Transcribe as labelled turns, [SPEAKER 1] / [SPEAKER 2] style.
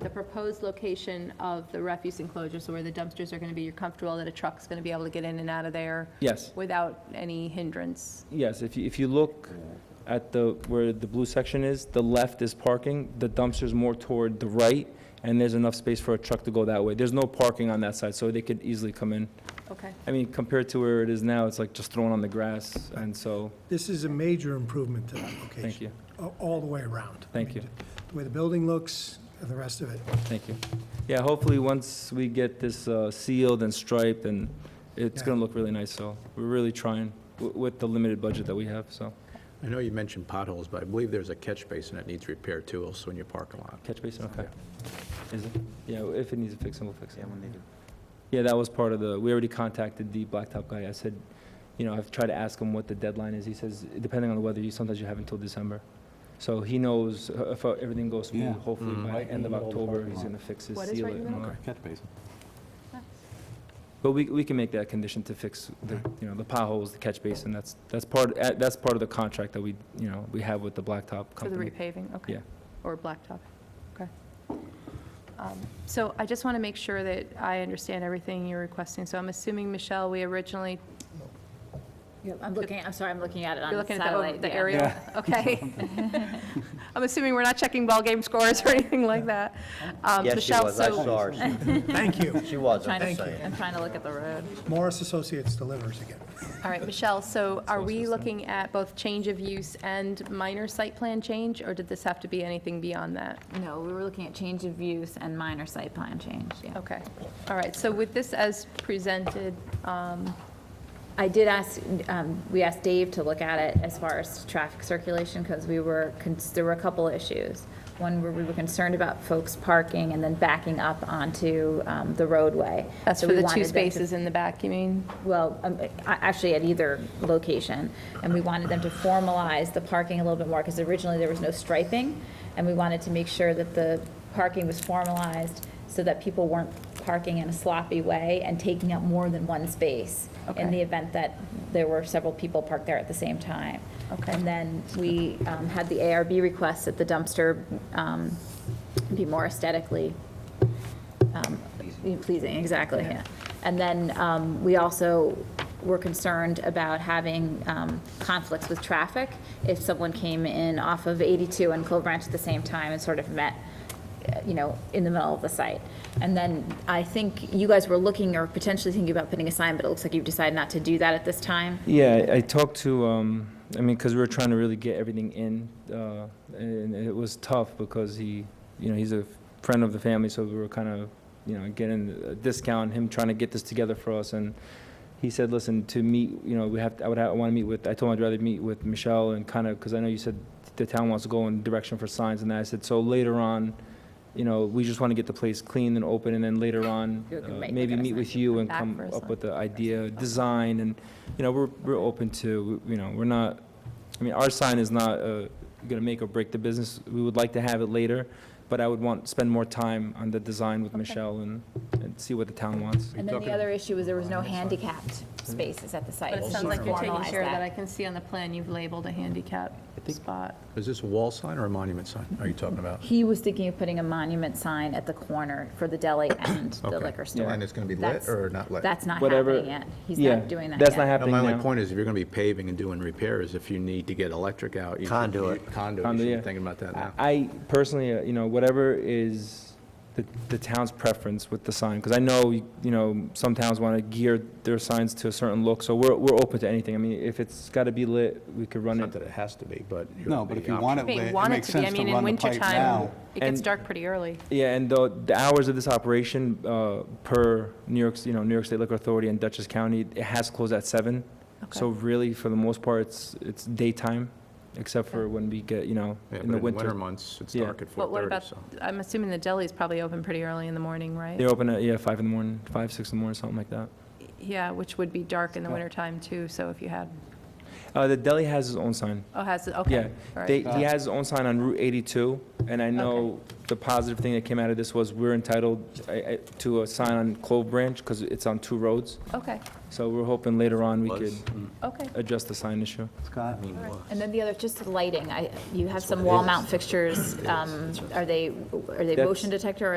[SPEAKER 1] the proposed location of the refuse enclosure, so where the dumpsters are going to be, you're comfortable that a truck's going to be able to get in and out of there
[SPEAKER 2] Yes,
[SPEAKER 1] without any hindrance?
[SPEAKER 2] yes, if you, if you look at the, where the blue section is, the left is parking, the dumpster's more toward the right, and there's enough space for a truck to go that way. There's no parking on that side, so they could easily come in.
[SPEAKER 1] Okay.
[SPEAKER 2] I mean, compared to where it is now, it's like just thrown on the grass, and so,
[SPEAKER 3] This is a major improvement to that location.
[SPEAKER 2] thank you,
[SPEAKER 3] a- All the way around. I
[SPEAKER 2] Thank
[SPEAKER 3] mean,
[SPEAKER 2] you.
[SPEAKER 3] The way the building looks, and the rest of it.
[SPEAKER 2] thank you. Yeah, hopefully, once we get this uh, sealed and striped, and it's
[SPEAKER 3] Yeah.
[SPEAKER 2] gonna look really nice, so we're really trying w- with the limited budget that we have, so.
[SPEAKER 4] I know you mentioned potholes, but I believe there's a catch basin that needs repair too, also in your parking lot.
[SPEAKER 2] Catch basin, okay. Is it? Yeah, if it needs a fix, then we'll fix it.
[SPEAKER 5] Yeah, when they do.
[SPEAKER 2] Yeah, that was part of the, we already contacted the blacktop guy. I said, you know, I've tried to ask him what the deadline is. He says, depending on the weather, you, sometimes you have until December. So he knows uh, if uh, everything goes
[SPEAKER 5] Yeah.
[SPEAKER 2] smooth, hopefully
[SPEAKER 4] Mm.
[SPEAKER 2] by
[SPEAKER 5] Right in
[SPEAKER 2] end
[SPEAKER 5] the
[SPEAKER 2] of
[SPEAKER 5] middle of the
[SPEAKER 2] October,
[SPEAKER 5] parking
[SPEAKER 2] he's
[SPEAKER 5] lot.
[SPEAKER 2] gonna fix it,
[SPEAKER 1] What is
[SPEAKER 2] seal
[SPEAKER 1] right
[SPEAKER 2] it.
[SPEAKER 1] in the
[SPEAKER 2] and
[SPEAKER 1] middle?
[SPEAKER 2] all that.
[SPEAKER 5] Catch basin.
[SPEAKER 2] But we, we can make that a condition to fix the, you know, the potholes, the catch basin. That's, that's part, uh, that's part of the contract that we, you know, we have with the blacktop
[SPEAKER 1] For the
[SPEAKER 2] company.
[SPEAKER 1] repaving, okay.
[SPEAKER 2] Yeah.
[SPEAKER 1] Or blacktop, okay. Um, So I just want to make sure that I understand everything you're requesting. So I'm assuming, Michelle, we originally,
[SPEAKER 6] Yeah, I'm looking, I'm sorry, I'm looking at it on
[SPEAKER 1] you're
[SPEAKER 6] the
[SPEAKER 1] looking at the
[SPEAKER 6] satellite.
[SPEAKER 1] over- the
[SPEAKER 6] yeah.
[SPEAKER 1] aerial? Okay. I'm assuming we're not checking ball game scores or anything like that. Um,
[SPEAKER 5] Yes, she
[SPEAKER 1] Michelle,
[SPEAKER 5] was, I
[SPEAKER 1] so-
[SPEAKER 5] saw her. She-
[SPEAKER 3] Thank you.
[SPEAKER 5] She was, I'm
[SPEAKER 6] Trying
[SPEAKER 5] just
[SPEAKER 6] to,
[SPEAKER 3] Thank you.
[SPEAKER 5] saying.
[SPEAKER 6] I'm trying to look at the road.
[SPEAKER 3] Morris Associates delivers again.
[SPEAKER 1] All right, Michelle, so are we looking at both change of use and minor site plan change, or did this have to be anything beyond that?
[SPEAKER 6] No, we were looking at change of use and minor site plan change, yeah.
[SPEAKER 1] Okay, all right, so with this as presented, um,
[SPEAKER 6] I did ask, um, we asked Dave to look at it as far as traffic circulation, because we were, cons- there were a couple issues. One where we were concerned about folks parking and then backing up onto um, the roadway.
[SPEAKER 1] that's
[SPEAKER 6] So
[SPEAKER 1] for
[SPEAKER 6] we
[SPEAKER 1] the
[SPEAKER 6] wanted
[SPEAKER 1] two
[SPEAKER 6] them to-
[SPEAKER 1] spaces in the back, you mean?
[SPEAKER 6] well, um, a- actually at either location. And we wanted them to formalize the parking a little bit more, because originally there was no striping. And we wanted to make sure that the parking was formalized so that people weren't parking in a sloppy way and taking up more than one space in
[SPEAKER 1] Okay.
[SPEAKER 6] the event that there were several people parked there at the same time.
[SPEAKER 1] Okay.
[SPEAKER 6] And then we um, had the ARB request that the dumpster um, be more aesthetically um, pleasing, exactly, yeah. And then um, we also were concerned about having um, conflicts with traffic if someone came in off of 82 and Clover Branch at the same time and sort of met, uh, you know, in the middle of the site. And then I think you guys were looking or potentially thinking about putting a sign, but it looks like you've decided not to do that at this time.
[SPEAKER 2] Yeah, I- I talked to, um, I mean, because we were trying to really get everything in, uh, and it was tough because he, you know, he's a friend of the family, so we were kind of, you know, getting a discount, him trying to get this together for us, and he said, listen, to meet, you know, we have, I would, ha- I want to meet with, I told him I'd rather meet with Michelle and kind of, because I know you said the town wants to go in direction for signs and that, I said, so later on, you know, we just want to get the place clean and open, and then later on,
[SPEAKER 6] You can
[SPEAKER 2] uh,
[SPEAKER 6] make-
[SPEAKER 2] maybe
[SPEAKER 6] look at a
[SPEAKER 2] meet
[SPEAKER 6] sign.
[SPEAKER 2] with you and
[SPEAKER 1] Back
[SPEAKER 2] come
[SPEAKER 1] for a
[SPEAKER 2] up
[SPEAKER 1] sign.
[SPEAKER 2] with the idea, design, and you know, we're, we're open to, you know, we're not, I mean, our sign is not uh, gonna make or break the business. We would like to have it later, but I would want, spend more time on the design with Michelle and, and see what the town wants.
[SPEAKER 6] And then the other issue was there was no handicapped spaces at the site.
[SPEAKER 1] But it
[SPEAKER 6] so
[SPEAKER 1] sounds
[SPEAKER 6] she's
[SPEAKER 1] like you're taking
[SPEAKER 6] formalized
[SPEAKER 1] care of that. I can see on the plan you've labeled a handicap spot.
[SPEAKER 4] Is this a wall sign or a monument sign are you talking about?
[SPEAKER 6] He was thinking of putting a monument sign at the corner for the deli and the
[SPEAKER 4] Okay.
[SPEAKER 6] liquor store.
[SPEAKER 4] And it's gonna be lit
[SPEAKER 6] That's-
[SPEAKER 4] or not lit?
[SPEAKER 6] That's not
[SPEAKER 2] Whatever-
[SPEAKER 6] happening yet. He's
[SPEAKER 2] yeah,
[SPEAKER 6] not doing that yet.
[SPEAKER 2] That's not
[SPEAKER 4] No,
[SPEAKER 2] happening
[SPEAKER 4] My only
[SPEAKER 2] now.
[SPEAKER 4] point is, if you're gonna be paving and doing repairs, if you need to get electric out. you should-
[SPEAKER 5] Conduit.
[SPEAKER 4] Conduit, you
[SPEAKER 2] Conduit,
[SPEAKER 4] should
[SPEAKER 2] yeah.
[SPEAKER 4] be thinking about that now.
[SPEAKER 2] I personally, uh, you know, whatever is the, the town's preference with the sign, because I know, you you know, some towns want to gear their signs to a certain look, so we're, we're open to anything. I mean, if it's got to be lit, we could
[SPEAKER 4] It's
[SPEAKER 2] run
[SPEAKER 4] Not
[SPEAKER 2] it.
[SPEAKER 4] that it has to be, but. you
[SPEAKER 7] No,
[SPEAKER 4] have
[SPEAKER 7] but
[SPEAKER 4] the
[SPEAKER 7] if you
[SPEAKER 4] option.
[SPEAKER 7] want it
[SPEAKER 1] They
[SPEAKER 7] lit, it
[SPEAKER 1] want it
[SPEAKER 7] makes
[SPEAKER 1] to be, I
[SPEAKER 7] sense to
[SPEAKER 1] mean, in
[SPEAKER 7] run the pipe
[SPEAKER 1] wintertime,
[SPEAKER 7] now.
[SPEAKER 1] it gets
[SPEAKER 2] And-
[SPEAKER 1] dark pretty early.
[SPEAKER 2] Yeah, and the, the hours of this operation, uh, per New York's, you know, New York State Liquor Authority and Dutchess County, it has closed at seven. So really, for the most part, it's, it's daytime, except for when we get, you know,
[SPEAKER 4] Yeah,
[SPEAKER 2] in
[SPEAKER 4] but
[SPEAKER 2] the
[SPEAKER 4] in winter
[SPEAKER 2] winter.
[SPEAKER 4] months, it's
[SPEAKER 2] Yeah.
[SPEAKER 4] dark at
[SPEAKER 1] But what
[SPEAKER 4] 4:30,
[SPEAKER 1] about,
[SPEAKER 4] so.
[SPEAKER 1] I'm assuming the deli's probably open pretty early in the morning, right?
[SPEAKER 2] They open at, yeah, five in the morning, five, six in the morning, something like that.
[SPEAKER 1] Yeah, which would be dark in the wintertime too, so if you had,
[SPEAKER 2] Uh, Uh, the deli has his own sign.
[SPEAKER 1] Oh, has it, okay.
[SPEAKER 2] Yeah,
[SPEAKER 1] all right.
[SPEAKER 2] they, he has his own sign on Route 82, and I know
[SPEAKER 1] Okay.
[SPEAKER 2] the positive thing that came out of this was we're entitled I- I- to a sign on Clove Branch, because it's on two roads,
[SPEAKER 1] Okay,
[SPEAKER 2] so we're hoping later on we could
[SPEAKER 4] Was.
[SPEAKER 1] okay.
[SPEAKER 2] address the sign issue.
[SPEAKER 5] Scott?
[SPEAKER 6] And then the other, just the lighting, I, you have some wall mount fixtures, um, are they, are they
[SPEAKER 2] That's-
[SPEAKER 6] motion detector, or